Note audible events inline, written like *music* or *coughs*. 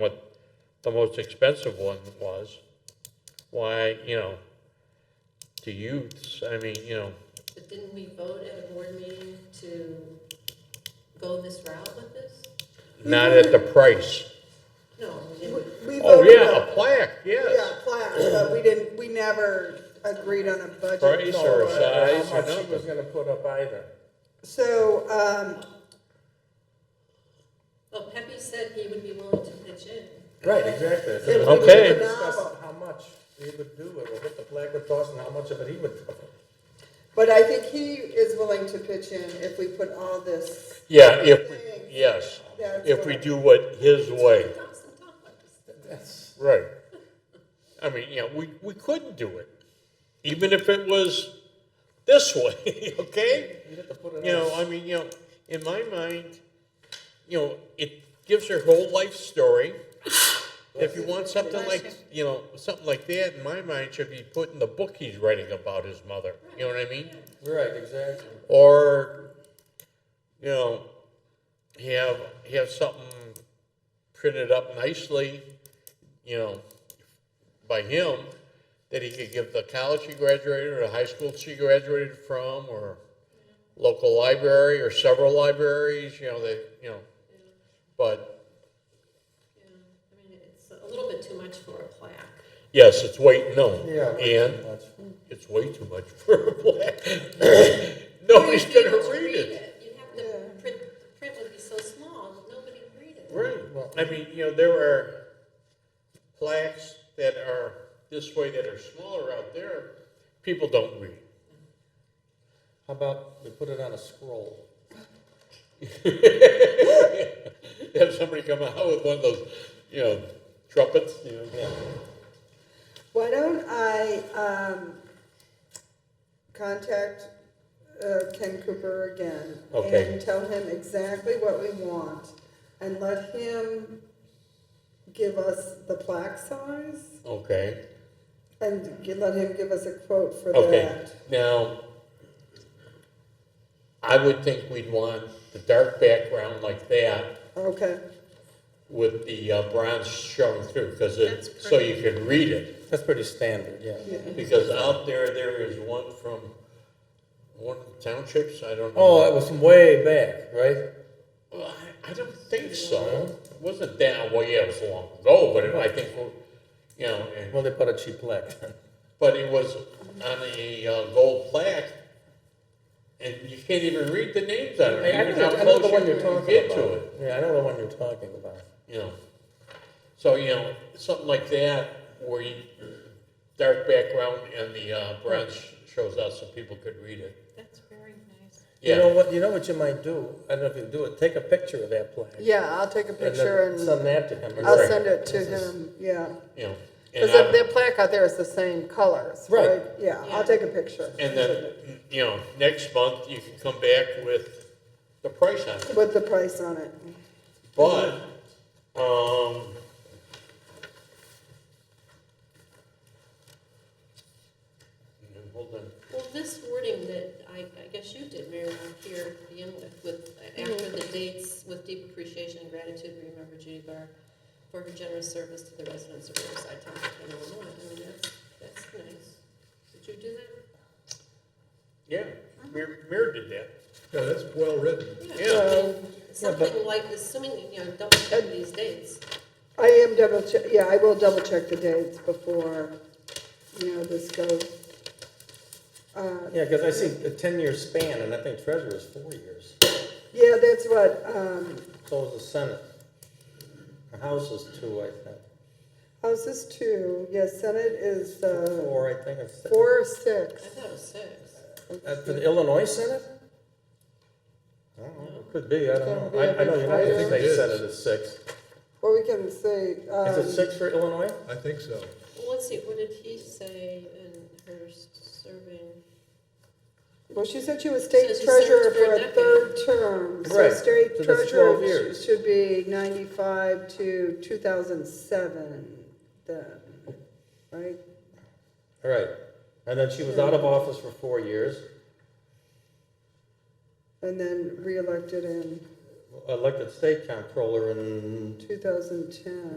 what the most expensive one was, why, you know, to youths, I mean, you know, But didn't we vote at a board meeting to go this route with this? not at the price. No, we We- didn't. We Oh, voted yeah, up- a plaque, Yeah, yes. plaques, but we didn't, we never agreed on a budget. Price No, or but size How or much she was nothing. gonna put up either. So, um, Well, Pepe said he would be willing to pitch in. Right, exactly. It was Okay. We discussed novel. how much we would do it, or what the flag would cost and how much of it he would cover. but I think he is willing to pitch in if we put all this, Yeah, if, we- yes, That's if what we I- do what his way, Thousand dollars. That's, right. I mean, yeah, we, we couldn't do it, even if it was this way, *laughs* okay? you'd have to put it. You know, I mean, you know, in my mind, you know, it gives her whole life *sighs* story. If you want something like, you know, something like that, in my mind, should be put in the book he's writing about his mother. You know what I mean? Right, exactly. Or, you know, have have something printed up nicely, you know, by him that he could give the college he graduated or the high school she graduated from or local library or several libraries, you know, they, you know, Yeah, but yeah. I mean, it's a little bit too much for a *laughs* plaque. yes, it's way, no. Yeah. And much. it's way too much for a black. *coughs* Nobody's You'd be gonna able to read it. You'd have to, print, the print would be so small, that nobody would read it. Right. Well- I mean, you know, there are plaques that are this way that are smaller out there. People don't read. *laughs* How about we put it on a scroll? Have somebody come out with one of those, you know, trumpets, you know. why don't I, um, contact, uh, Ken Cooper again? Okay. And tell him exactly what we want and let him give us the plaque size Okay. and g- let him give us a quote for Okay. that. Now, I would think we'd want the dark background like that Okay, with the uh, bronze showing through, because it, That's so you can read it. That's pretty standard, yeah. yeah. Because out there, there is one from one of the townships, I don't know. Oh, that was from way back, right? Well, I, I don't think so. It wasn't that, well, yeah, it was long ago, but it, I think, you know, and, Well, they put a cheap plaque. *laughs* but it was on a uh, gold plaque. And you can't even read the names on it, even how close you can get to it, Yeah, I know the one you're talking about. you know. So, you know, something like that, where you, dark background and the uh, bronze shows out so people could read it. That's very nice. Yeah. You know what, you know what you might do? I don't know if you do it, take a picture of that plaque. Yeah, I'll take a then picture and Send that to him. I'll Right. send it to This is- him, yeah. you know. And, Because I- their plaque out there is the same colors, Right. right? Yeah, Yeah. I'll take a picture. and then, you know, next month you can come back with the price on it. With the price on it. But, um, and hold on. Well, this wording that I, I guess you did, Mary, Lou, here to begin with, with, after the dates, with deep appreciation and gratitude, we remember Judy Barr for her generous service to the residents of Riverside Township in Illinois. I mean, that's, that's nice. Did you do that? Yeah, Mir, Mir did that. Yeah, that's well written. Yeah. I mean, Something like, assuming, you know, double check these dates. I am double check, yeah, I will double check the dates before, you know, this goes. Uh, Yeah, because I see a ten-year span, and I think treasurer is four years. Yeah, that's what, um, So is the senate. The house is two, I think. House is two, yes, Senate is, uh, Four, I think, or six. four or I six. thought it was six. Uh, For the Illinois senate? I don't know, it could be, I don't know. I, I know, you know, I think It they is. said it is six. Or we can say, Is it um, six for Illinois? I think so. Well, let's see, what did he say in her serving? well, she said she was state Says she served treasurer for for a a decade. third term. So Right, state so that's 12 treasurer years. sh- should be ninety-five to two thousand seven then, right? All right. And then she was out of office for four years, And then reelected in elected state comptroller in 2010.